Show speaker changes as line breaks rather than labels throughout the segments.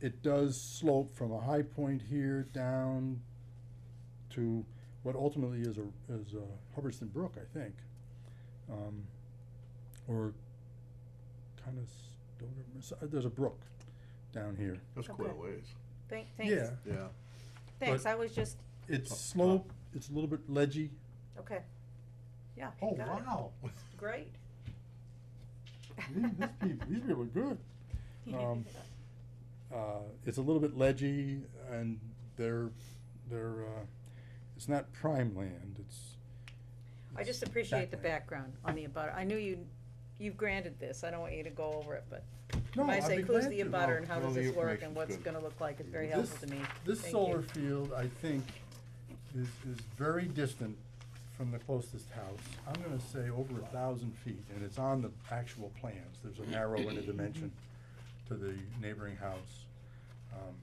it does slope from a high point here down to what ultimately is a, is a Hubbardston Brook, I think. Um, or kind of Stoner, uh, there's a brook down here.
That's quite a
Okay.
ways.
Thank, thanks,
Yeah,
Yeah.
thanks, I was just,
it's
Up top.
slope, it's a little bit ledgy.
okay. Yeah, he
Oh,
got it.
wow.
great.
These these people, these people are good. Um, uh, it's a little bit ledgy and they're, they're, uh, it's not prime land, it's.
I
it's
just appreciate the
backland.
background on the abutter, I knew you, you've granted this, I don't want you to go over it, but
No,
when I
I'd
say
be
who's
glad
the
to.
abutter and how
No,
does
the
this work and
information's
what's
good.
it gonna look like, it's very
This-
helpful to me.
This
Thank you.
solar field, I think, is, is very distant from the closest house. I'm gonna say over a thousand feet, and it's on the actual plans. There's an arrow in a dimension to the neighboring house. Um,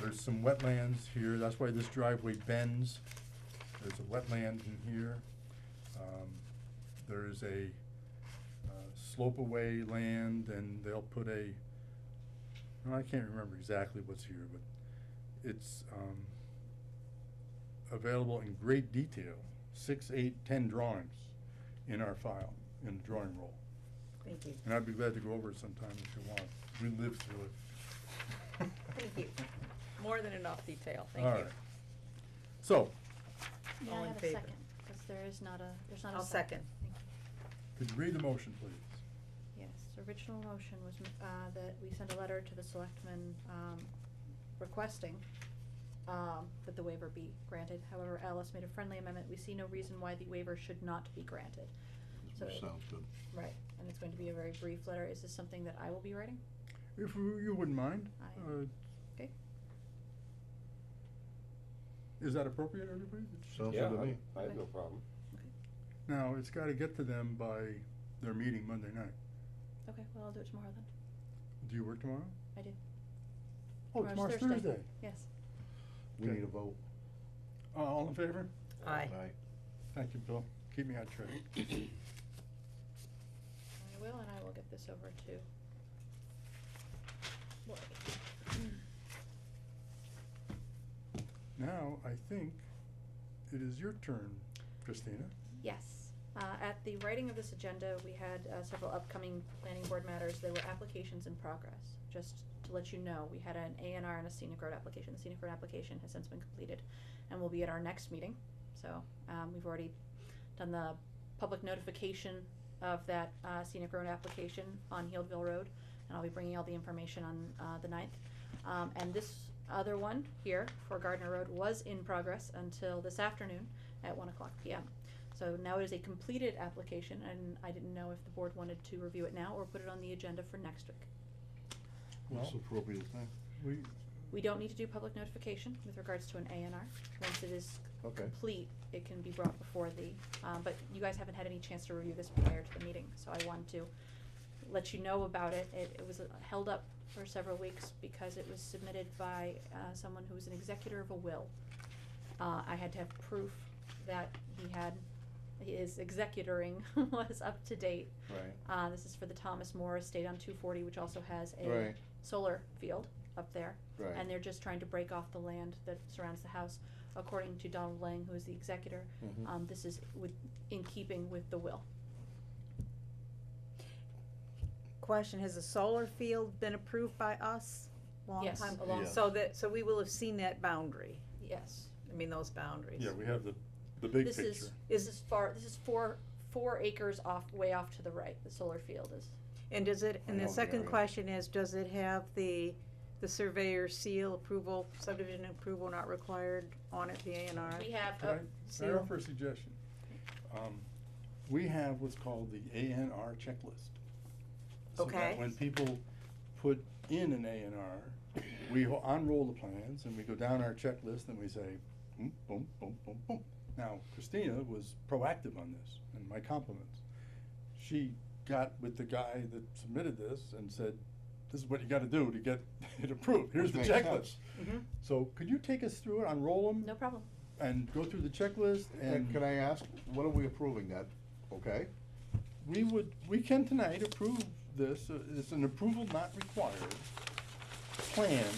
There's some wetlands here, that's why this driveway bends. There's a wetland in here. Um, There is a uh, slope away land, and they'll put a, and I can't remember exactly what's here, but it's um, available in great detail, six, eight, ten drawings in our file, in the drawing roll.
Thank you,
And I'd be glad to go over it sometime if you want. We lived through it.
thank you, more than enough detail, thank
All
you.
right. So,
May
All
I
in
have a
favor?
second? Because there is not a, there's not a
I'll second.
second. Thank you.
could you read the motion, please?
Yes, the original motion was, uh, that we send a letter to the selectmen, um, requesting, um, that the waiver be granted. However, Alice made a friendly amendment. We see no reason why the waiver should not be granted. So it-
Sounds good.
Right, and it's going to be a very brief letter. Is this something that I will be writing?
If you you wouldn't mind?
I-
uh,
Okay.
Is that appropriate, everybody?
Sounds
Yeah,
good to me.
I- I have no problem.
Now, it's gotta get to them by their meeting Monday night.
Okay, well, I'll do it tomorrow then.
Do you work tomorrow?
I do.
Oh, tomorrow's
Tomorrow's Thursday.
Thursday.
Yes.
We
Okay.
need a vote.
Uh, all in favor?
Aye.
Aye.
Thank you, Bill. Keep me on track.
I will, and I will get this over to. Lori.
Now, I think it is your turn, Christina.
Yes. Uh, At the writing of this agenda, we had uh, several upcoming planning board matters. There were applications in progress. Just to let you know, we had an A and R and a scenic road application. The scenic road application has since been completed and will be at our next meeting. So um, we've already done the public notification of that uh, scenic road application on Healdville Road. And I'll be bringing all the information on uh, the 9th. Um, And this other one here for Gardner Road was in progress until this afternoon at 1 o'clock PM. So now it is a completed application, and I didn't know if the board wanted to review it now or put it on the agenda for next week.
That's
Well,
the appropriate thing.
we,
We don't need to do public notification with regards to an A and R. Once it is
Okay.
complete, it can be brought before the, um, but you guys haven't had any chance to review this prior to the meeting, so I wanted to let you know about it. It, it was uh, held up for several weeks because it was submitted by, uh, someone who was an executor of a will. Uh, I had to have proof that he had, his executoring was up to date.
Right.
Uh, this is for the Thomas More Estate on two forty, which also has a
Right.
solar field up there.
Right.
And they're just trying to break off the land that surrounds the house. According to Donald Lang, who is the executor,
Mhm.
um, this is with, in keeping with the will.
Question, has the solar field been approved by us? Long
Yes.
time-
A long-
Yes.
So that, so we will have seen that boundary,
Yes.
I mean, those boundaries.
yeah, we have the, the big
This
picture.
is, this is far, this is four, four acres off, way off to the right, the solar field is.
And does it,
I
and the
know the
second
area.
question is, does it have the, the surveyor seal approval, subdivision approval not required on it, the A and R?
We have, oh,
Could I-
a-
Can I
seal?
offer a suggestion? Um, We have what's called the ANR checklist. So that
Okay.
When people put in an ANR, we ho- unroll the plans and we go down our checklist and we say, boom, boom, boom, boom, boom. Now Christina was proactive on this, and my compliments. She got with the guy that submitted this and said, this is what you gotta do to get it approved, here's the
Which makes
checklist.
sense.
Mhm.
So could you take us through it, unroll them?
no problem.
and go through the checklist
And can
and
I ask, what are we approving that? Okay?
we would, we can tonight approve this, uh, it's an approval not required plan